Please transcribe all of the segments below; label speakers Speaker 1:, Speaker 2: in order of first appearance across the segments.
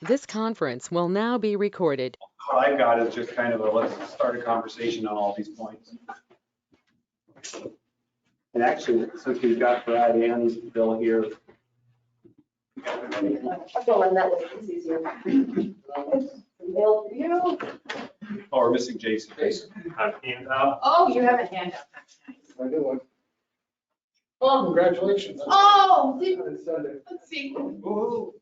Speaker 1: This conference will now be recorded.
Speaker 2: what I've got is just kind of a, let's start a conversation on all these points. And actually, since we've got Brad and Bill here.
Speaker 3: I'm going that way, it's easier. Bill, you,
Speaker 2: Oh, we're missing Jason. Jason.
Speaker 3: oh, you have a hand up, that's nice.
Speaker 4: I do.
Speaker 3: Oh,
Speaker 4: Congratulations.
Speaker 3: oh, did-
Speaker 4: On Sunday.
Speaker 3: let's see,
Speaker 4: You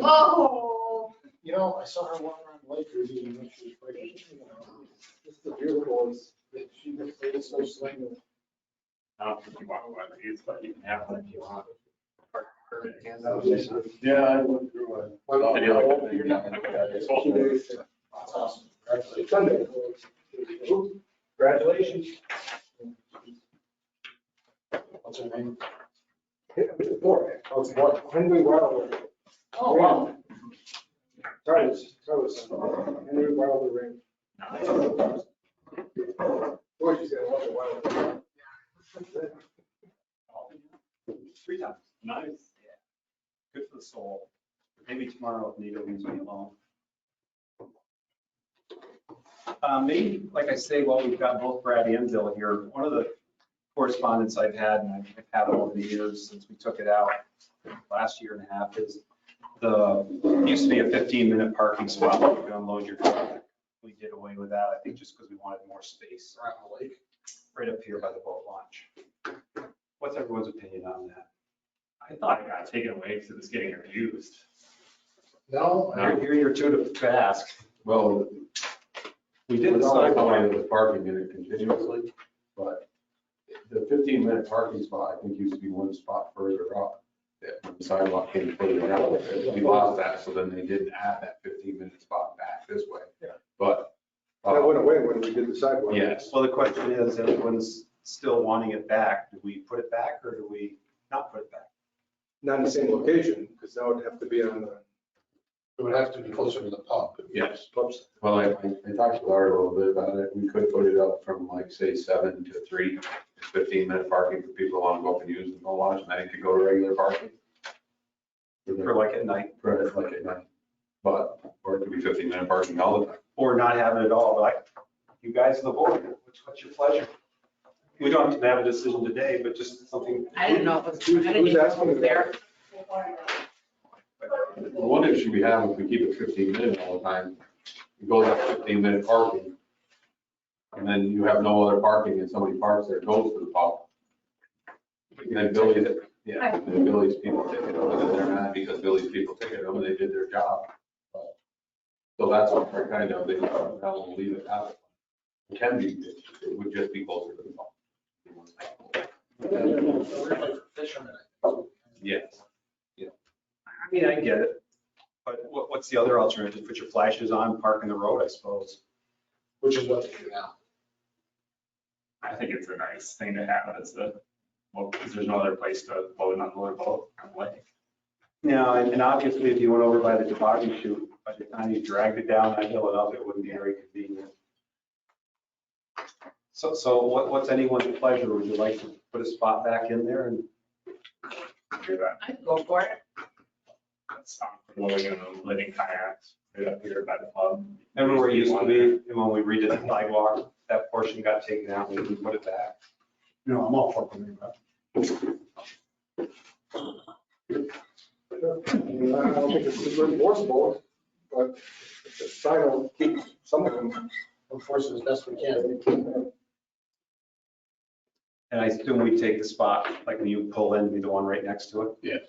Speaker 3: oh,
Speaker 4: know, I saw her walk around the lake the other day, and she was pregnant. you know, Just the beautiful is that she just made it so slang.
Speaker 5: I don't think you want one of these, but you can have one if you want.
Speaker 4: Yeah, I went through it. Well,
Speaker 5: Did you like that? You're not gonna look at it.
Speaker 4: It's awesome. That's awesome. Congratulations. Sunday. Congratulations. What's her name? Warwick. Oh, it's Warwick. Henry Wilder.
Speaker 3: oh, wow.
Speaker 4: Sorry, it's- sorry, it's Henry Wilder Range. Boy, she's got a lot of wild.
Speaker 2: Three times. Nice. Good for the soul. Maybe tomorrow if Nita leaves me alone. Uh, Maybe, like I say, while we've got both Brad and Bill here, one of the correspondence I've had, and I've had over the years since we took it out last year and a half, is the, it used to be a 15-minute parking spot where you could unload your truck. We did away with that, I think just because we wanted more space. Right up here by the boat launch. What's everyone's opinion on that?
Speaker 5: I thought it got taken away because it was getting abused.
Speaker 4: No,
Speaker 5: No.
Speaker 2: You're you're too fast.
Speaker 6: Well,
Speaker 2: We
Speaker 6: we
Speaker 2: did
Speaker 6: did not
Speaker 2: decide
Speaker 6: come
Speaker 2: on
Speaker 6: in with parking in it continuously, but the fifteen minute parking spot, I think, used to be one spot further up. That when the sidewalk came further out, we lost that, so then they didn't add that fifteen minute spot back this way.
Speaker 4: Yeah.
Speaker 6: But. uh,
Speaker 4: that went away when we did the sidewalk.
Speaker 6: Yes,
Speaker 2: Well, the question is, everyone's still wanting it back. Do we put it back or do we not put it back?
Speaker 4: Not in the same location, because that would have to be on the.
Speaker 7: It would have to be closer to the pump.
Speaker 6: yes.
Speaker 4: Oops.
Speaker 6: Well, I, I I talked to Laura a little bit about it. We could put it up from like, say, seven to three. Fifteen minute parking for people who want to go up and use the boat launch, and then it could go to regular parking.
Speaker 2: For like at night
Speaker 6: credit like at night. But, or it could be fifteen minute parking all the time.
Speaker 2: or not have it at all? But I- you guys are the board, What's- what's your pleasure? We don't have to have a decision today, but just something.
Speaker 8: I didn't know it was,
Speaker 4: Who's-
Speaker 8: I didn't
Speaker 4: who's
Speaker 8: even know
Speaker 4: asking
Speaker 8: it was
Speaker 4: about
Speaker 8: there.
Speaker 6: The one issue we have, if we keep it fifteen minute all the time, it goes up fifteen minute parking. And then you have no other parking and somebody parks there, goes to the pub. And then Billy's, yeah, and then Billy's people take it over, then they're mad because Billy's people take it over, they did their job. But- So that's what we're kind of, they, they'll leave it out. It can be, it would just be closer to the pub.
Speaker 7: Fishermen.
Speaker 6: Yes.
Speaker 2: I mean, I get it. But what, what's the other alternative? Just put your flashes on, park in the road, I suppose.
Speaker 7: Which is what they do now.
Speaker 5: I think it's a nice thing to have as a, well, because there's no other place to load and unload a boat on the lake.
Speaker 2: Now, and and obviously if you went over by the toboggan chute, by the time you dragged it down that hill and up, it wouldn't be very convenient. So, so what, what's anyone's pleasure? Would you like to put a spot back in there and
Speaker 5: Do that.
Speaker 8: I can go for it.
Speaker 5: That's not loading and letting kayaks right up here by the pub.
Speaker 2: Remember where it used to be, and when we redid the sidewalk, that portion got taken out, and we put it back.
Speaker 4: You know, I'm all fucking me, I don't think it's super enforceable, but it's a sign will keep some of them
Speaker 7: Enforce it as best we can.
Speaker 4: can.
Speaker 2: And I assume we take the spot, like when you pull in, be the one right next to it?
Speaker 6: Yes.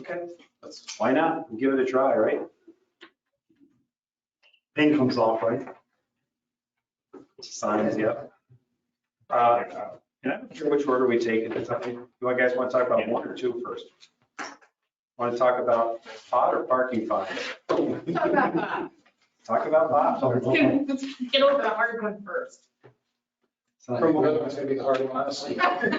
Speaker 2: Okay, that's, why not? Give it a try, right? Paint comes off, right? Signs, yep. Uh, And I'm not sure which order we take it. It's up to You You guys want to talk about one or two first? Want to talk about pot or parking fines?
Speaker 8: Talk about that.
Speaker 2: Talk about pot.
Speaker 8: Let's get- let's Get over the hard one first.
Speaker 7: From what it's gonna be the uh, hard one, honestly.
Speaker 8: I
Speaker 7: The,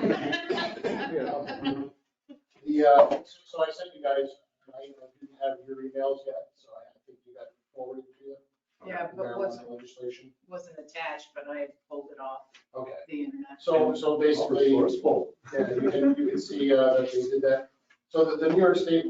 Speaker 7: uh, so I sent you guys, I didn't have your emails yet, so I think you got forwarded to you.
Speaker 8: Yeah, but what's-
Speaker 7: Marijuana Legislation.
Speaker 8: Wasn't attached, but I pulled it off
Speaker 7: Okay.
Speaker 8: the internet.
Speaker 7: So, so basically, yeah, you can, you can see, uh, that they did that. So the, the New York State